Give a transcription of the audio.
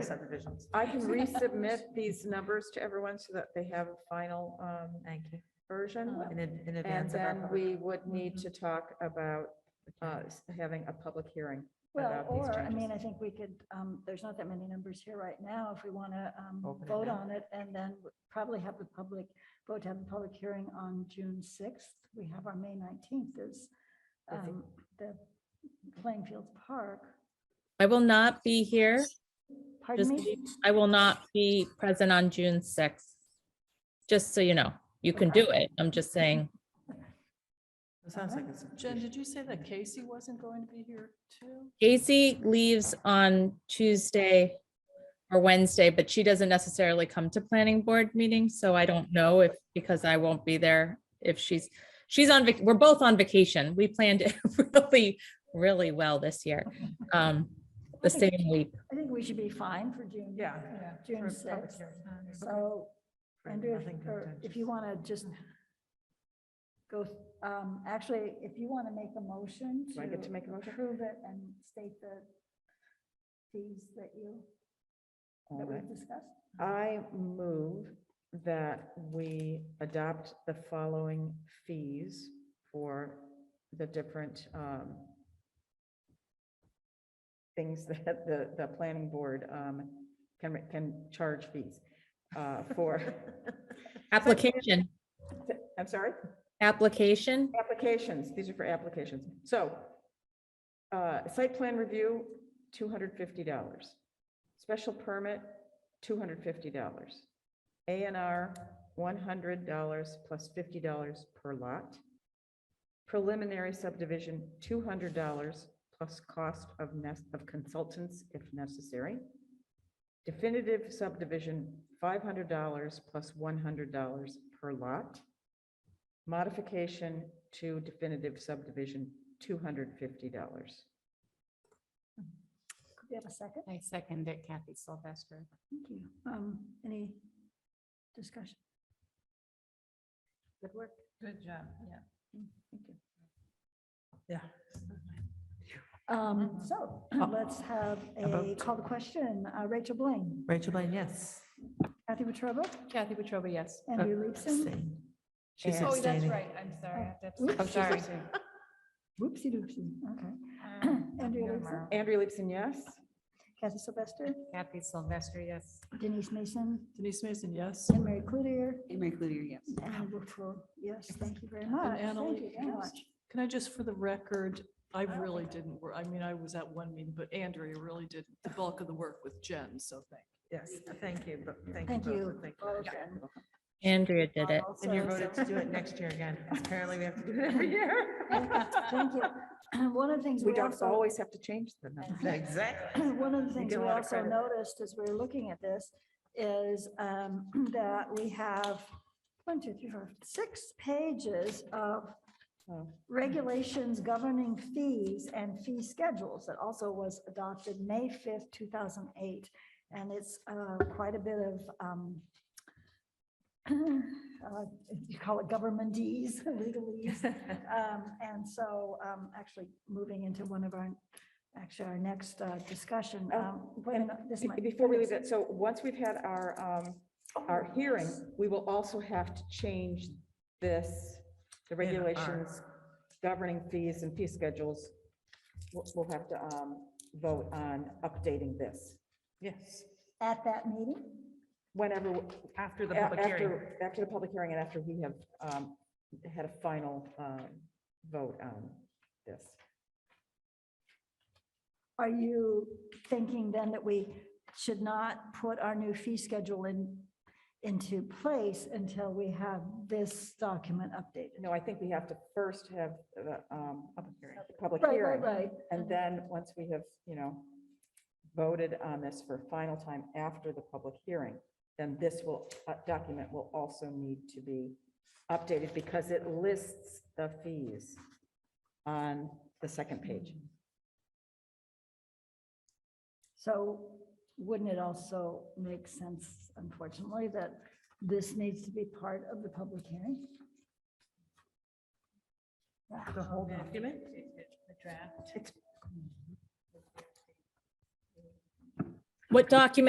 the subdivisions. I can resubmit these numbers to everyone so that they have a final um, Thank you. version. Uh, In, ad- in Oh. And advance of our. then public- we would Mhm. need to talk about uh, s- having a public hearing. Well, about these or, I changes. mean, I think we could, um, there's not that many numbers here right now, if we want to, um, Open it vote up. on it and then probably have the public, vote to have the public hearing on June sixth. We have our May nineteenth is, I think- um, the playing fields park. I will not be here. Pardon Just, me? I will not be present on June sixth. Just so you know, you can do it. I'm just saying, It sounds like it's. Uh-huh. Jen, did you say that Casey wasn't going to be here too? Casey leaves on Tuesday or Wednesday, but she doesn't necessarily come to planning board meetings, so I don't know if, because I won't be there, if she's, she's on, vac- we're both on vacation. We planned it really, really well this year. Um, the same week. I think we should be fine for June. Yeah. June for a public sixth. hearing. Okay. So For Andrew, nothing if- or if you contentious. want to just Mm-hmm. go, um, actually, if you want to make a motion Do I get to make a motion? Approve it and state the fees that you, All that right. we've discussed. I move that we adopt the following fees for the different um, things that the, the planning board um, can, can charge fees uh, for. Application, I'm sorry? application, Applications, these are for applications. So, uh, site plan review, two hundred fifty dollars. Special permit, two hundred fifty dollars. A and R, one hundred dollars plus fifty dollars per lot. Preliminary subdivision, two hundred dollars plus cost of nest, of consultants if necessary. Definitive subdivision, five hundred dollars plus one hundred dollars per lot modification to definitive subdivision, two hundred fifty dollars. Could we have a second? I second it, Kathy Sylvester. Thank you. Um, any discussion? Good work. Good job, yeah. Mm, Yeah. Um, so let's have A a vote. call to question. Uh, Rachel Blaine, Rachel Blaine, yes. Kathy Wetruba, Kathy Petrova, yes. Andrew Leibson. Abstain. She's And- Oh, that's abstaining. right. I'm sorry. I have to Oops, abstain. I'm she's sorry. abstaining. Whoopsie doopsie. Okay. Um, Andrea no Leibson? tomorrow. Andrea Leibson, yes? Kathy Sylvester, Kathy Sylvester, yes. Denise Mason, Denise Mason, yes. and Mary Cloutier. Mary Cloutier, yes. And Brookfield, yes, thank you very And much. Annalee, Thank you very yes. much. Can I just, for the record, I really didn't work, I mean, I was at one meeting, but Andrea really did the bulk of the work with Jen, so thank Yes, thank you, but thank you. Thank both, you. thank both, and Andrea did it. And you also- voted to do it next year again. Apparently we have to do it every year. Thank you. And One of the things We we don't also, always have to change the number. Exactly. one of the things get a we lot of also credit. noticed as we were looking at this is um, that we have one, two, three, four, six pages of Oh. regulations governing fees and fee schedules that also was adopted May fifth, two thousand eight. And it's uh, quite a bit of, um, uh, you call it governmentees, legalese. Um, And so um, actually moving into one of our, actually our next uh, discussion. Oh, um, wait a and minute, this Be- might- Before we leave that, so once we've had our, um, our hearing, we will also have to change this, the regulations governing fees and fee schedules. We'll, we'll have to, um, vote on updating this, Yes, At that meeting? whenever, after the A- public hearing. after- After the public hearing and after we have um, had a final um, vote on this. Are you thinking then that we should not put our new fee schedule in, into place until we have this document updated? No, I think we have to first have the um, public Right, right, hearing. right. And then, once we have, you know, voted on this for final time after the public hearing, then this will, uh, document will also need to be updated because it lists the fees on the second page. So wouldn't it also make sense, unfortunately, that this needs to be part of the public hearing? The whole document? What document